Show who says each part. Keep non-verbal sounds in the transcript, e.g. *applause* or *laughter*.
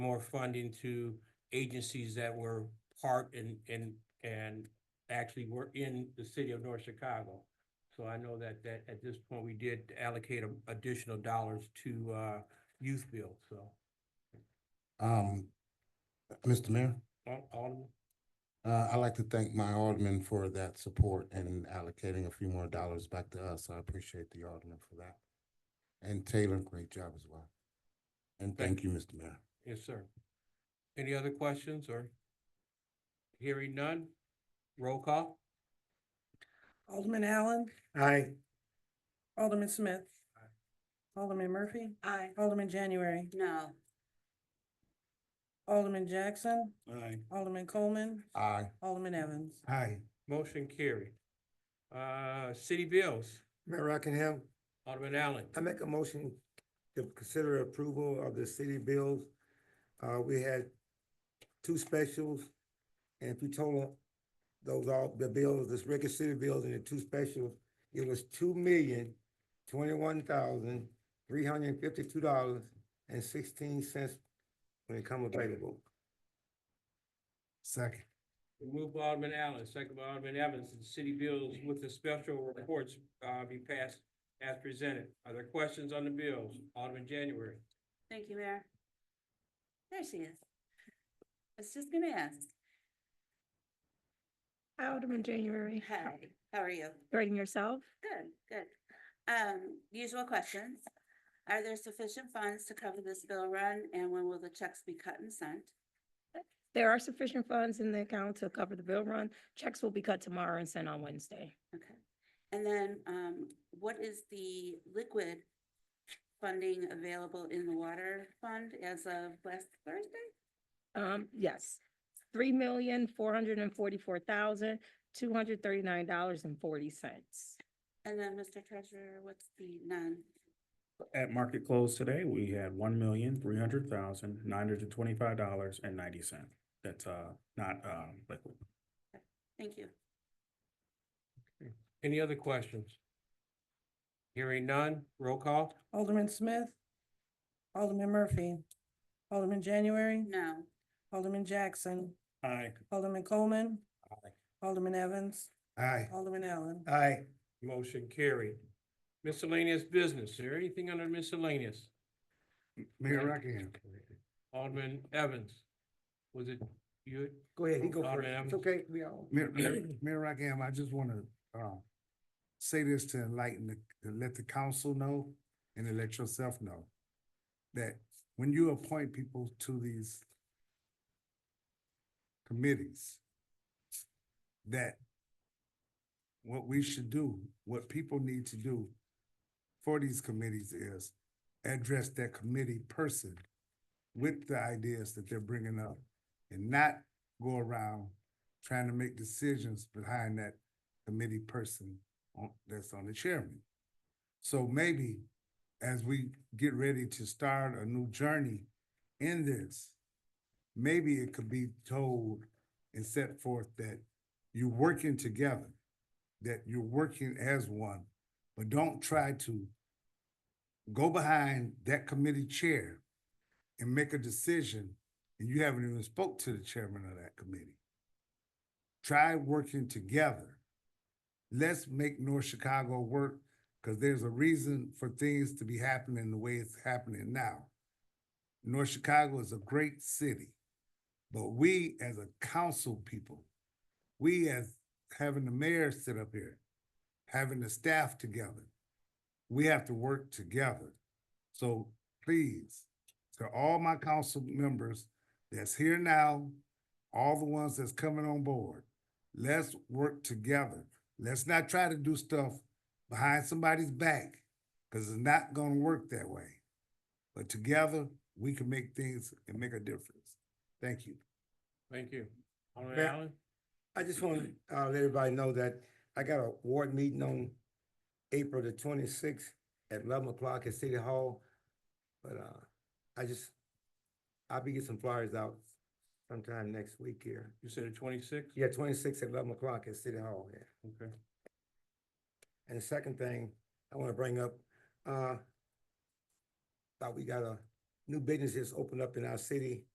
Speaker 1: more funding to agencies that were part and, and, and actually were in the city of North Chicago. So I know that, that at this point, we did allocate a- additional dollars to, uh, youth bill, so.
Speaker 2: Um, Mr. Mayor,
Speaker 1: Al- Alderman,
Speaker 2: uh, I'd like to thank my alderman for that support and allocating a few more dollars back to us. I appreciate the alderman for that. And Taylor, great job as well. And thank you, Mr. Mayor.
Speaker 1: yes, sir. Any other questions or? Hearing none, roll call?
Speaker 3: Alderman Allen,
Speaker 2: Aye.
Speaker 3: Alderman Smith. Alderman Murphy. Aye. Alderman January,
Speaker 4: No,
Speaker 3: Alderman Jackson,
Speaker 1: Aye.
Speaker 3: Alderman Coleman,
Speaker 2: Aye.
Speaker 3: Alderman Evans.
Speaker 2: Aye.
Speaker 1: Motion carried. Uh, city bills,
Speaker 5: Mayor Rockingham,
Speaker 1: Alderman Allen,
Speaker 5: I make a motion to consider approval of the city bills. Uh, we had two specials, and if you total those all, the bills, this regular city bills and the two specials, it was two million, twenty-one thousand, three hundred and fifty-two dollars and sixteen cents when it come available.
Speaker 2: Second.
Speaker 1: Move by Alderman Allen, second by Alderman Evans, that city bills with the special reports, uh, be passed as presented. Are there questions on the bills? Alderman January.
Speaker 4: thank you, Mayor. There she is. I was just gonna ask,
Speaker 6: Alderman January.
Speaker 4: hi, how are you?
Speaker 6: Writing yourself?
Speaker 4: Good, good. Um, usual questions. Are there sufficient funds to cover this bill run and when will the checks be cut and sent?
Speaker 6: There are sufficient funds in the account to cover the bill run. Checks will be cut tomorrow and sent on Wednesday.
Speaker 4: Okay. And then, um, what is the liquid funding available in the water fund as of last Thursday?
Speaker 6: Um, yes, three million, four hundred and forty-four thousand, two hundred thirty-nine dollars and forty cents.
Speaker 4: And then, Mr. Treasurer, what's the non,
Speaker 7: At market close today, we had one million, three hundred thousand, nine hundred and twenty-five dollars and ninety cent. That's, uh, not, um, liquid.
Speaker 4: thank you.
Speaker 1: Any other questions? Hearing none, roll call?
Speaker 3: Alderman Smith. Alderman Murphy. Alderman January,
Speaker 4: No,
Speaker 3: Alderman Jackson,
Speaker 7: Aye.
Speaker 3: Alderman Coleman. Alderman Evans,
Speaker 2: Aye.
Speaker 3: Alderman Allen.
Speaker 5: Aye.
Speaker 1: Motion carried. Miscellaneous business, is there anything under miscellaneous?
Speaker 2: Mayor Rockingham.
Speaker 1: Alderman Evans, was it you?
Speaker 5: Go ahead, he go
Speaker 1: Alderman
Speaker 5: first.
Speaker 1: Evans.
Speaker 5: It's okay, we all. *clears throat*
Speaker 8: *clears throat* Mayor, Mayor- Mayor Rockham, I just wanna, uh, say this to enlighten, the- to let the council know and to let yourself know that when you appoint people to these committees, that what we should do, what people need to do for these committees is address that committee person with the ideas that they're bringing up and not go around trying to make decisions behind that committee person on, that's on the chairman. So maybe as we get ready to start a new journey in this, maybe it could be told and set forth that you're working together, that you're working as one, but don't try to go behind that committee chair and make a decision and you haven't even spoke to the chairman of that committee try working together. Let's make North Chicago work because there's a reason for things to be happening the way it's happening now. North Chicago is a great city, but we as a council people, we as having the mayor sit up here, having the staff together, we have to work together. So please, to all my council members that's here now, all the ones that's coming on board. Let's work together. Let's not try to do stuff behind somebody's back because it's not going to work that way. But together, we can make things and make a difference. Thank you.
Speaker 1: Thank you. Alderman
Speaker 5: Mayor-
Speaker 1: Allen?
Speaker 5: I just want to uh, let everybody know that I got a ward meeting on April the twenty-sixth at eleven o'clock at City Hall. But uh, I just, I'll be getting some flyers out sometime next week here.
Speaker 1: You said a twenty-six?
Speaker 5: Yeah, twenty-six at eleven o'clock at City Hall, yeah.
Speaker 1: Okay.
Speaker 5: And the second thing I want to bring up, uh, thought we got a new business that's opened up in our city.